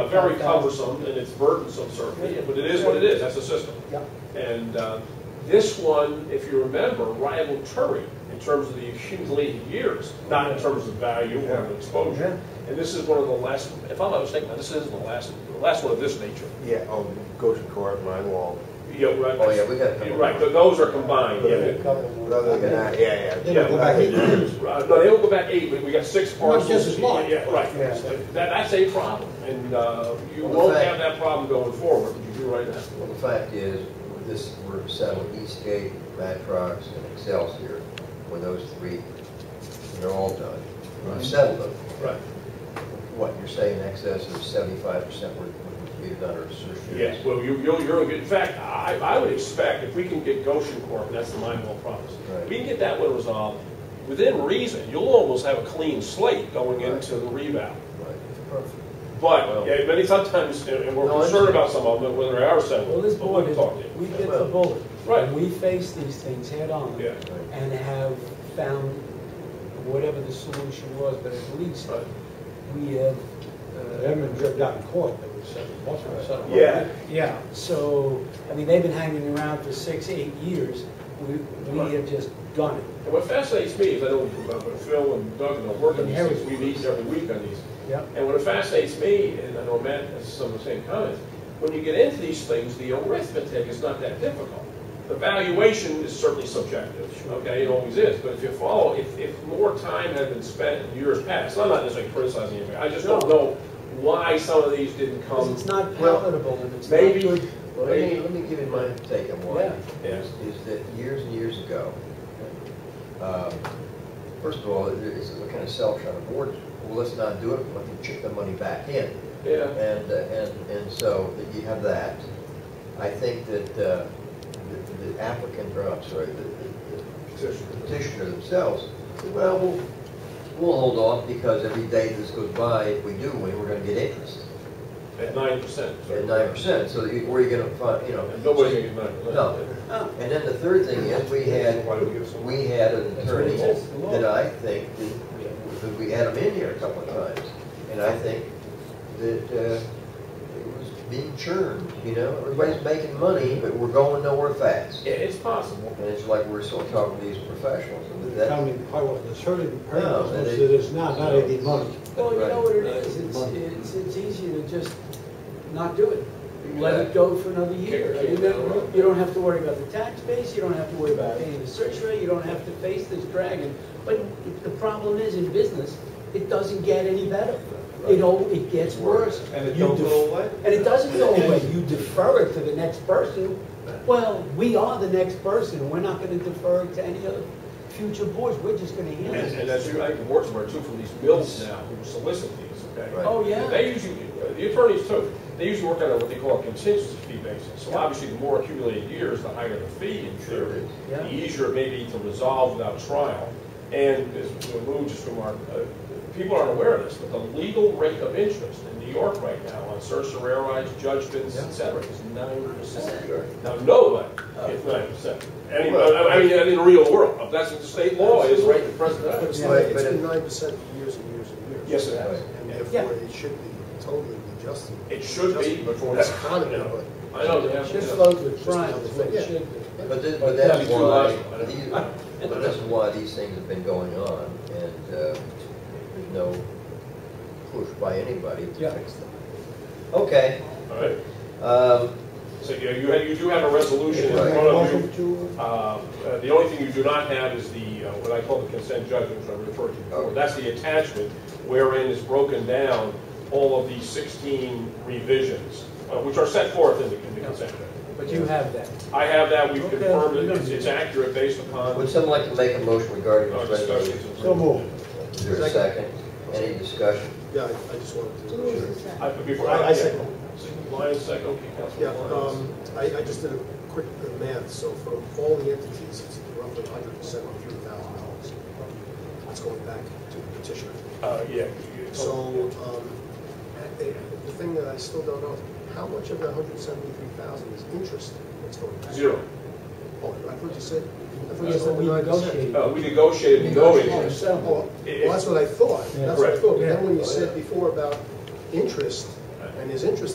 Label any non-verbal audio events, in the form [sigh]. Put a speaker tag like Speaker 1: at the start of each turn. Speaker 1: Very cumbersome and it's burdensome certainly, but it is what it is, that's the system.
Speaker 2: Yeah.
Speaker 1: And uh, this one, if you remember, rivaled Turi in terms of the accumulated years, not in terms of value or
Speaker 3: Yeah.
Speaker 1: exposure. And this is one of the last, if I'm not mistaken, this is the last, the last one of this nature.
Speaker 3: Yeah, oh, Goshen Court, Mine Wall.
Speaker 1: Yeah, right.
Speaker 3: Oh, yeah, we got a couple.
Speaker 1: You're Right, th- those are combined, yeah.
Speaker 3: But other than that, yeah, yeah.
Speaker 2: They don't go back eight years.
Speaker 1: Right, No, they don't go back eight, but we got six
Speaker 2: Well, it's
Speaker 1: parcels.
Speaker 2: just as long.
Speaker 1: Yeah, right.
Speaker 2: Yeah.
Speaker 1: That, that's a problem, and uh, you
Speaker 4: Well, the
Speaker 1: won't
Speaker 4: fact-
Speaker 1: have that problem going forward, you do right now.
Speaker 4: Well, the fact is, this, we're selling Eastgate, Matrox, and Excelsior, when those three, they're all done. We've settled them.
Speaker 1: Right.
Speaker 4: What, you're saying in excess of seventy-five percent were were either done or associated?
Speaker 1: Yes, well, you, you'll, you're, in fact, I, I would expect, if we can get Goshen Corp., and that's the mine mill promise,
Speaker 4: Right.
Speaker 1: we can get that one resolved, within reason, you'll almost have a clean slate going
Speaker 4: Right.
Speaker 1: into the rebound.
Speaker 4: Right.
Speaker 1: But,
Speaker 4: Well-
Speaker 1: yeah, many sometimes, and and we're
Speaker 4: No, I
Speaker 1: concerned
Speaker 4: understand.
Speaker 1: about some of them, whether they are
Speaker 5: Well,
Speaker 1: settled,
Speaker 5: this
Speaker 1: but
Speaker 5: board
Speaker 1: we'll
Speaker 5: is,
Speaker 1: talk to you.
Speaker 5: we get the bullet.
Speaker 1: Right.
Speaker 5: And we face these things head-on.
Speaker 1: Yeah.
Speaker 5: And have found whatever the solution was, but at least
Speaker 1: Right.
Speaker 5: we have, uh,
Speaker 2: Them and drip down in court, they were settled, most of them settled.
Speaker 1: Yeah.
Speaker 2: Yeah.
Speaker 5: so, I mean, they've been hanging around for six, eight years. We, we have just done it.
Speaker 1: And what fascinates me is, I know uh, Phil and Doug and I work on these
Speaker 2: Inherit.
Speaker 1: things, we meet every week on these.
Speaker 2: Yep.
Speaker 1: And what fascinates me, and I know Matt has some of the same comments, when you get into these things, the arithmetic is not that difficult. The valuation is certainly subjective, okay, it always is, but if you follow, if, if more time had been spent in years past, I'm not necessarily criticizing anybody, I just don't know why some of these didn't
Speaker 5: 'Cause
Speaker 1: come.
Speaker 5: it's not palatable and it's not
Speaker 1: Maybe,
Speaker 5: good.
Speaker 4: Well, let me, let me give you my take on why.
Speaker 1: Yeah. Yeah.
Speaker 4: Is is that years and years ago, um, first of all, it- it's a kind of self-shot of board, well, let's not do it, let them chip the money back in.
Speaker 1: yeah,
Speaker 4: And, uh, and, and so that you have that. I think that uh, the the applicant, or I'm sorry, the- the the petitioner themselves, said, well, we'll, we'll hold off because every day this goes by, if we do win, we're gonna get interest
Speaker 1: at nine percent.
Speaker 4: at nine percent, so that you- where are you gonna find, you know?
Speaker 1: And nobody's gonna get nine percent.
Speaker 4: No. And then the third thing is, we had,
Speaker 1: Why do we give so much?
Speaker 4: we had an
Speaker 1: That's what it
Speaker 4: attorney
Speaker 1: is.
Speaker 4: that I think, that- that we had him in here a couple of times, and I think that uh, it was being churned, you know? Everybody's making money, but we're going nowhere fast.
Speaker 1: Yeah, it's possible.
Speaker 4: And it's like we're still talking to these professionals, and that,
Speaker 2: I mean, I was asserting the
Speaker 4: No,
Speaker 2: purpose,
Speaker 4: they-
Speaker 2: it is not, not any money.
Speaker 5: Well, you
Speaker 4: Right.
Speaker 5: know what it is, it's,
Speaker 2: Money.
Speaker 5: it's, it's easier to just not do it. Let it go for another year. I mean, that- You don't have to worry about the tax base, you don't have to worry about paying the surcharge, you don't have to face this dragon. But the problem is, in business, it doesn't get any better. It all, it gets worse.
Speaker 6: And it
Speaker 5: You
Speaker 6: don't
Speaker 5: def-
Speaker 6: go away?
Speaker 5: And it doesn't go
Speaker 6: [laughs]
Speaker 5: away, you defer it to the next person. Well, we are the next person, we're not gonna defer it to any other future boards, we're just gonna handle
Speaker 1: And,
Speaker 5: it.
Speaker 1: and as you, I can work somewhere too from these mills now who solicit these, okay?
Speaker 4: Right.
Speaker 5: Oh, yeah.
Speaker 1: They usually, the attorneys too, they usually work on a- what they call a contingency fee basis. So obviously, the more accumulated years, the higher the fee in theory.
Speaker 5: Yeah.
Speaker 1: The easier it may be to resolve without trial. And as we moved just from our, uh, people aren't aware of this, but the legal rate of interest in New York right now on certiorari's judgments, et cetera, is nine percent. Now, nobody gets nine percent. I mean, I mean, in the real world, that's what the state law is right at present time.
Speaker 6: It's
Speaker 4: Yeah,
Speaker 6: like,
Speaker 4: but
Speaker 6: it's
Speaker 4: it-
Speaker 6: been nine percent for years and years and years.
Speaker 1: Yes, it has.
Speaker 4: Right.
Speaker 6: And
Speaker 1: Yeah.
Speaker 6: therefore, it should be totally adjusted.
Speaker 1: It should be, but for
Speaker 6: For
Speaker 1: that-
Speaker 6: this economy, but.
Speaker 1: I know, they have.
Speaker 2: Just
Speaker 1: yeah.
Speaker 2: flows with Brian, is what
Speaker 6: Yeah.
Speaker 2: it should be.
Speaker 4: but this, but
Speaker 1: That'd
Speaker 4: that's
Speaker 1: be too
Speaker 4: why,
Speaker 1: logical, I don't-
Speaker 4: these- but that's why these things have been going on, and uh, there's no push by anybody to
Speaker 2: Yeah.
Speaker 4: fix them. Okay.
Speaker 1: All right,
Speaker 4: Um,
Speaker 1: so you, you have- you do have a resolution in
Speaker 4: Right.
Speaker 1: front of you.
Speaker 2: Motion to,
Speaker 1: Uh, uh, The only thing you do not have is the, uh, what I call the consent judgment, which I referred to before.
Speaker 4: Okay.
Speaker 1: That's the attachment wherein is broken down all of the 16 revisions, uh, which are set forth in the in the consent judgment.
Speaker 5: But you have that.
Speaker 1: I have that, we've
Speaker 5: Okay.
Speaker 1: confirmed it, it's- it's accurate based upon
Speaker 4: Would someone like to make a motion regarding
Speaker 1: our
Speaker 4: this resolution?
Speaker 1: discussions.
Speaker 2: so move.
Speaker 4: Is there a second? Any discussion?
Speaker 6: Yeah, I I just wanted to.
Speaker 1: I- before-
Speaker 6: I- I
Speaker 1: yeah.
Speaker 6: second.
Speaker 1: Lyons second, okay,
Speaker 6: Yeah,
Speaker 1: Councilman Lyons.
Speaker 6: um, I, I just did a quick math, so for all the entities, it's roughly hundred percent or three thousand dollars. That's going back to the petitioner.
Speaker 1: Uh, Yeah.
Speaker 6: So, um, eh, eh, the thing that I still don't know, is how much of the hundred seventy-three thousand is interest that's going back?
Speaker 1: Zero.
Speaker 6: Oh, I thought you said, I thought you
Speaker 5: That's what
Speaker 6: said
Speaker 5: we
Speaker 6: nine percent.
Speaker 5: negotiated.
Speaker 1: Uh, We negotiated no interest.
Speaker 6: Well, well, that's what I thought, that's what I thought, but then when you said before about interest, and his interest